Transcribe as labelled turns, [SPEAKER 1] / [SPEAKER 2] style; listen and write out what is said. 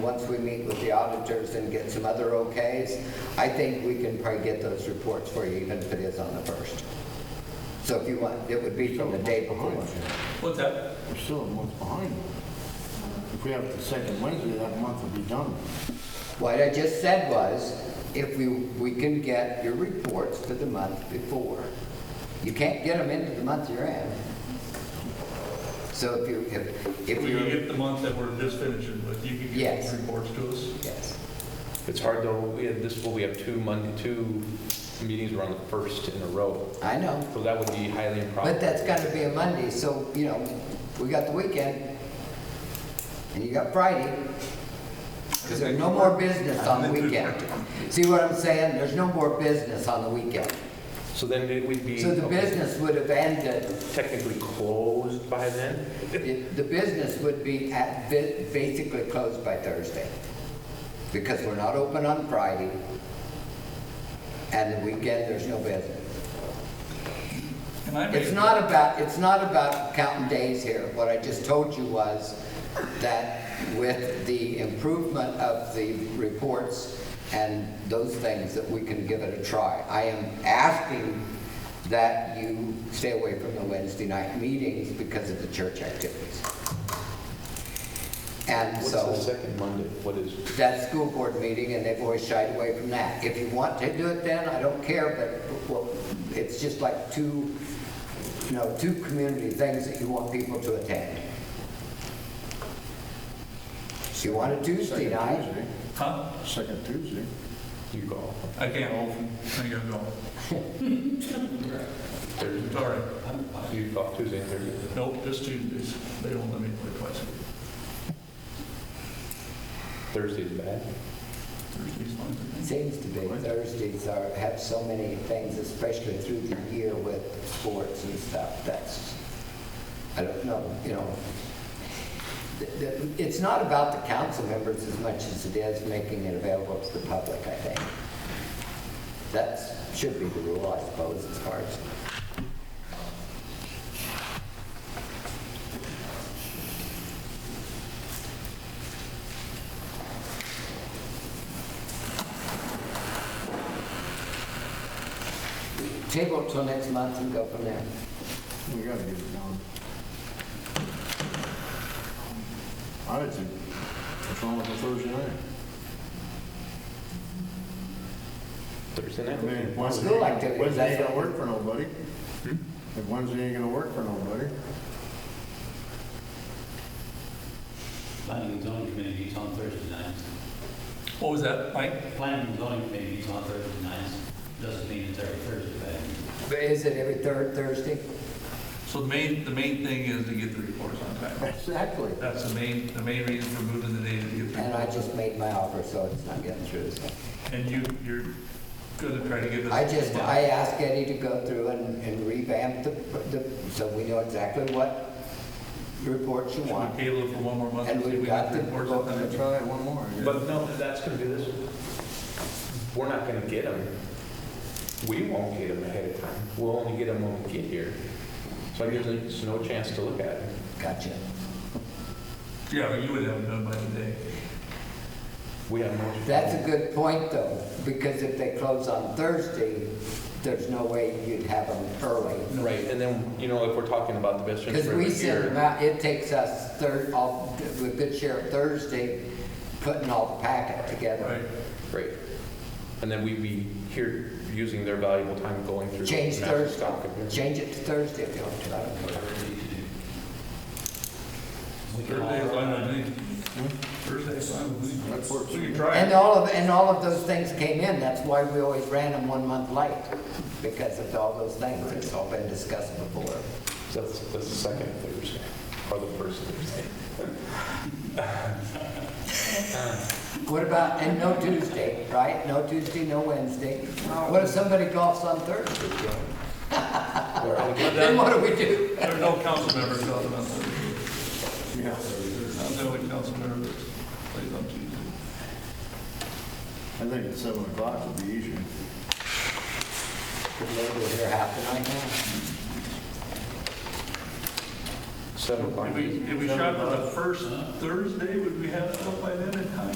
[SPEAKER 1] Once we meet with the auditors and get some other okays, I think we can probably get those reports for you, even if it is on the first. So if you want, it would be from the day before.
[SPEAKER 2] What's that?
[SPEAKER 3] We're still a month behind. If we have the second Wednesday, that month will be done.
[SPEAKER 1] What I just said was, if we, we can get your reports for the month before. You can't get them into the month you're in. So if you, if, if
[SPEAKER 2] We can
[SPEAKER 1] you're,
[SPEAKER 2] get the month that we're just finishing with, you can get
[SPEAKER 1] Yes.
[SPEAKER 2] those reports to us.
[SPEAKER 1] yes,
[SPEAKER 4] It's hard though, we had this, well, we have two Monday, two meetings around the first in a row,
[SPEAKER 1] I know.
[SPEAKER 4] so that would be highly improbable.
[SPEAKER 1] But that's gotta be a Monday, so, you know, we got the weekend, and you got Friday, because there's no more business on the weekend. See what I'm saying? There's no more business on the weekend.
[SPEAKER 4] So then it would be.
[SPEAKER 1] So the business would have ended,
[SPEAKER 4] Technically closed by then?
[SPEAKER 1] the business would be at, ba- basically closed by Thursday, because we're not open on Friday, and the weekend, there's no business.
[SPEAKER 2] And I may-
[SPEAKER 1] It's not about, it's not about counting days here. What I just told you was that with the improvement of the reports and those things, that we can give it a try. I am asking that you stay away from the Wednesday night meetings because of the church activities. And
[SPEAKER 4] What's
[SPEAKER 1] so.
[SPEAKER 4] the second Monday? What is,
[SPEAKER 1] That's school board meeting, and they've always shied away from that. If you want to do it then, I don't care, but well, it's just like two, you know, two community things that you want people to attend. So you want a Tuesday
[SPEAKER 3] Second
[SPEAKER 1] night?
[SPEAKER 3] Tuesday.
[SPEAKER 2] Huh?
[SPEAKER 3] Second Tuesday.
[SPEAKER 4] you go,
[SPEAKER 2] I can't hold them. I gotta go.
[SPEAKER 4] Thursday,
[SPEAKER 2] Sorry.
[SPEAKER 4] you go Tuesday, and Thursday.
[SPEAKER 2] Nope, just Tuesdays. They don't let me play twice.
[SPEAKER 4] Thursday's bad.
[SPEAKER 2] Thursday's fine.
[SPEAKER 1] Seems to be, Thursdays are, have so many things, especially through the year with sports and stuff, that's, I don't know, you know. Th- th- It's not about the council members as much as it is making it available to the public, I think. That's, should be the rule, I suppose, as far as, table it till next month and go from there.
[SPEAKER 3] We gotta get it done. I would think, what's wrong with the Thursday night?
[SPEAKER 4] Thursday
[SPEAKER 3] I mean,
[SPEAKER 4] night?
[SPEAKER 3] Wednesday-
[SPEAKER 1] School activities,
[SPEAKER 3] Wednesday ain't
[SPEAKER 1] that's
[SPEAKER 3] gonna
[SPEAKER 1] what-
[SPEAKER 3] work for nobody. If Wednesday ain't gonna work for nobody.
[SPEAKER 5] Planning and zoning committees on Thursday nights.
[SPEAKER 2] What was that, Mike?
[SPEAKER 5] Planning and zoning committees on Thursday nights doesn't mean it's every Thursday, but
[SPEAKER 1] But is it every third Thursday?
[SPEAKER 2] So the main, the main thing is to get the reports on time.
[SPEAKER 3] Exactly.
[SPEAKER 2] That's the main, the main reason for moving the date to get the
[SPEAKER 1] And I
[SPEAKER 2] reports.
[SPEAKER 1] just made my offer, so it's not getting through, so.
[SPEAKER 2] And you, you're gonna try to give us.
[SPEAKER 1] I just, I asked Eddie to go through and and revamp the, the, so we know exactly what reports you
[SPEAKER 2] Should
[SPEAKER 1] want.
[SPEAKER 2] we table it for one more month?
[SPEAKER 1] And
[SPEAKER 2] see if
[SPEAKER 1] we've
[SPEAKER 2] we have
[SPEAKER 1] got the
[SPEAKER 2] reports
[SPEAKER 1] book
[SPEAKER 2] on time?
[SPEAKER 3] I'll try one more. I guess.
[SPEAKER 4] But no, that's gonna be this, we're not gonna get them. We won't get them ahead of time, we'll only get them when we get here. So there's, there's no chance to look at them.
[SPEAKER 1] Gotcha.
[SPEAKER 2] Yeah, you would have it done by today.
[SPEAKER 4] We have no.
[SPEAKER 1] That's a good point, though, because if they close on Thursday, there's no way you'd have them early.
[SPEAKER 4] Right, and then, you know, if we're talking about the best interest
[SPEAKER 1] Because
[SPEAKER 4] rate
[SPEAKER 1] we send them
[SPEAKER 4] here,
[SPEAKER 1] out, it takes us third, all, with good share of Thursday, putting all the packet
[SPEAKER 2] Right.
[SPEAKER 1] together.
[SPEAKER 4] right. And then we'd be here using their valuable time going through.
[SPEAKER 1] Change
[SPEAKER 4] master
[SPEAKER 1] Thursday,
[SPEAKER 4] stock of here.
[SPEAKER 1] change it to Thursday if you want to, I don't care.
[SPEAKER 5] whatever it is you do. We can
[SPEAKER 2] Thursday's
[SPEAKER 5] all-
[SPEAKER 2] fine with me. Thursday's fine with me.
[SPEAKER 3] That works.
[SPEAKER 2] We can try
[SPEAKER 1] And
[SPEAKER 2] it.
[SPEAKER 1] all of, and all of those things came in, that's why we always ran them one month late, because of all those things, it's all been discussed before.
[SPEAKER 4] So That's, that's the second Thursday, or the first Thursday.
[SPEAKER 1] What about, and no Tuesday, right? No Tuesday, no Wednesday. What if somebody golfs on Thursday, Joe?
[SPEAKER 4] We're only getting-
[SPEAKER 1] Then what do we do?
[SPEAKER 2] There are no council members out on Thursday.
[SPEAKER 3] Yeah.
[SPEAKER 2] Not the only council member that plays on Tuesday.
[SPEAKER 3] I think at seven o'clock would be easier.
[SPEAKER 1] We're here half the night now.
[SPEAKER 4] Seven o'clock.
[SPEAKER 2] If we, if we shot for the first Thursday, would we have stuff by then in time?